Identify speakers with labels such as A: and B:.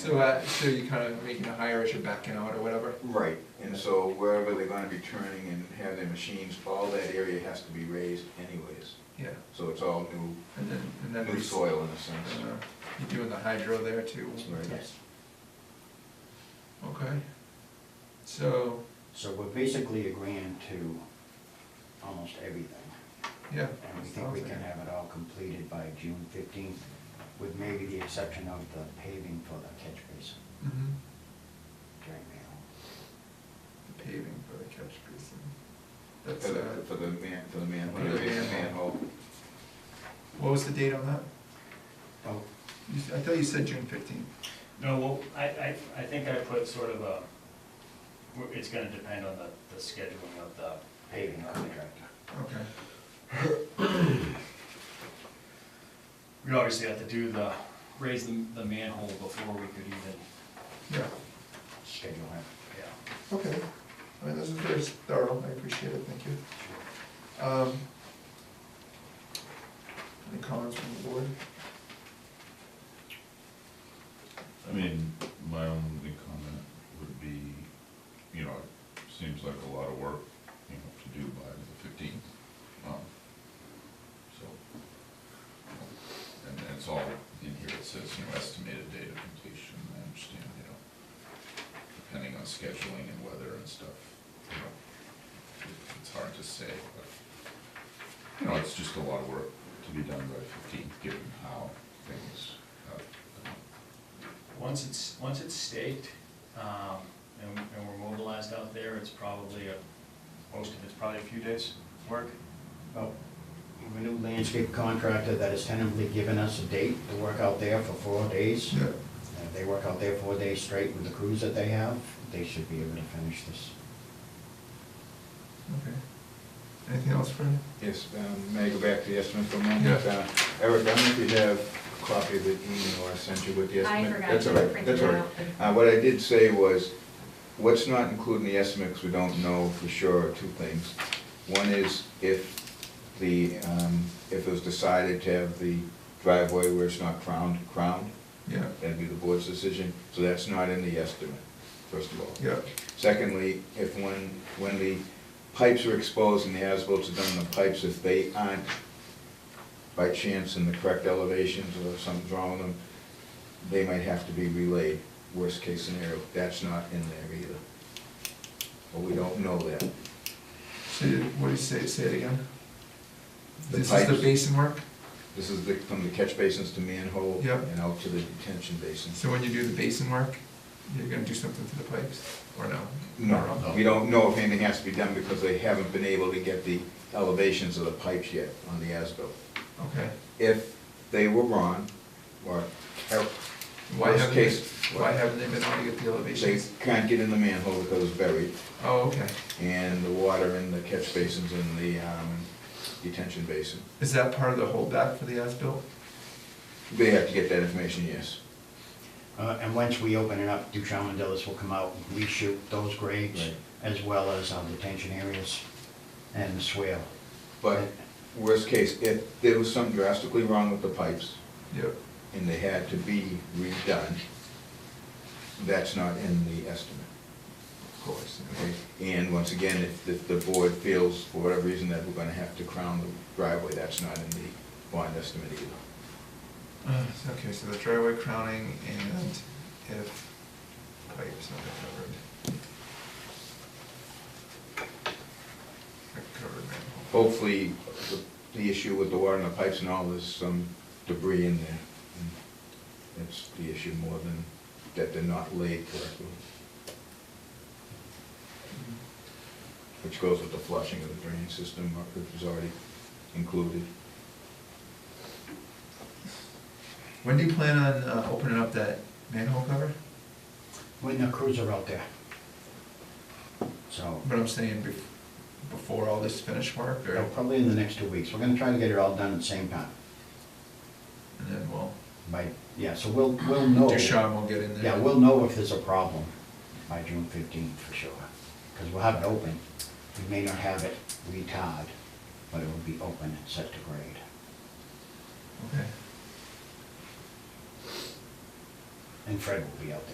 A: So, uh, so you're kind of making a hire as you're backing out or whatever?
B: Right, and so wherever they're gonna be turning and have their machines, all that area has to be raised anyways.
A: Yeah,
B: So it's all new,
A: and then, and then.
B: new
A: there's,
B: soil in a
A: uh,
B: sense.
A: You're doing the hydro there too?
B: Right.
C: Yes.
A: Okay. So,
C: So we're basically agreeing to almost everything.
A: yeah.
C: And we think we can have it all completed by June fifteenth, with maybe the exception of the paving for the catch basin
A: hmm
C: during
A: The
C: the,
A: paving for the catch basin.
B: For
A: That's,
B: the,
A: uh,
B: for the man, for the manhole,
A: For the
B: raise the
A: manhole.
B: manhole.
A: uh, what was the date on that?
C: oh,
A: You, s- I thought you said June fifteenth.
D: No, well, I, I, I think I put sort of a, we're- it's gonna depend on the, the scheduling of the.
C: paving contract.
A: Okay.
D: We obviously have to do the, raise the, the manhole before we could even,
A: Yeah.
C: schedule it.
D: yeah.
A: Okay. I mean, this is very thorough. I appreciate it. Thank you. Um, any comments from the board?
E: I mean, my only comment would be, you know, it seems like a lot of work, you know, to do by the fifteenth. um, So, and it's all in here, it says, you know, estimated date of completion, I understand, you know, depending on scheduling and weather and stuff, you know, it- it's hard to say, but, you know, it's just a lot of work to be done by fifteenth, given how things have gone.
D: Once it's, once it's staked, um, and, and we're mobilized out there, it's probably a, most of it's probably a few days' work.
C: Well, Oh, we have a new landscape contractor that has tentatively given us a date to work out there for four days.
A: Yeah.
C: And if they work out there four days straight with the crews that they have, they should be able to finish this.
A: Okay. Anything else, Fred?
B: Yes, um, may I go back to the estimate for a moment?
A: Yeah.
B: Uh, Eric, I don't know if you have a copy of the email I sent you with the
F: I
B: estimate?
F: forgot
B: That's
F: to
B: all right,
F: print
B: that's
F: it
B: all right.
F: out.
B: Uh, what I did say was, what's not included in the estimate, because we don't know for sure, are two things. One is if the, um, if it was decided to have the driveway where it's not crowned, crowned,
A: Yeah.
B: that'd be the board's decision, so that's not in the estimate, first of all.
A: Yeah.
B: Secondly, if when, when the pipes are exposed and the asphalt's done on the pipes, if they aren't by chance in the correct elevations or something's wrong with them, they might have to be relayed, worst case scenario, that's not in there either. But we don't know that.
A: So you- what do you say, say it again?
B: The
A: This is the
B: pipes.
A: basin work?
B: This is the, from the catch basins to manhole
A: Yep.
B: and out to the detention basin.
A: So when you do the basin work, you're gonna do something to the pipes, or no?
B: No, we don't know if anything has to be done because they haven't been able to get the elevations of the pipes yet on the ASBIL.
A: Okay.
B: if they were wrong, or, or
A: Why
B: Worst
A: haven't, they-
B: case.
A: why haven't they been able to get the
B: they
A: elevations?
B: can't get in the manhole because it's buried,
A: Oh, okay.
B: and the water in the catch basins and the um, detention basin.
A: Is that part of the holdback for the as-built?
B: They have to get that information, yes.
C: Uh, And once we open it up, Duchamp and Dillis will come out and reshoot those grades
B: Right.
C: as well as our detention areas and the swale.
B: But worst case, if there was something drastically wrong with the pipes
A: Yep.
B: and they had to be redone, that's not in the estimate.
A: Of course.
B: Okay? And once again, if the, the board feels for whatever reason that we're gonna have to crown the driveway, that's not in the bond estimate either.
A: Uh, so- Okay, so the driveway crowning and if pipes not covered. A Covered manhole.
B: Hopefully, the- the issue with the water and the pipes and all, there's some debris in there. and That's the issue more than that they're not laid correctly, which goes with the flushing of the drain system, uh, which was already included.
A: When do you plan on uh, opening up that manhole cover?
C: When the crews are out there. So,
A: But I'm saying bef- before all this finished work, or,
C: uh, probably in the next two weeks. We're gonna try to get it all done at the same time.
A: and then we'll,
C: By, yeah, so we'll, we'll know.
A: Ducharme will get in there.
C: Yeah, we'll know if there's a problem by June fifteenth for sure. Because we'll have it open. We may not have it retard, but it will be open and set to grade.
A: Okay.
C: and Fred will be out there.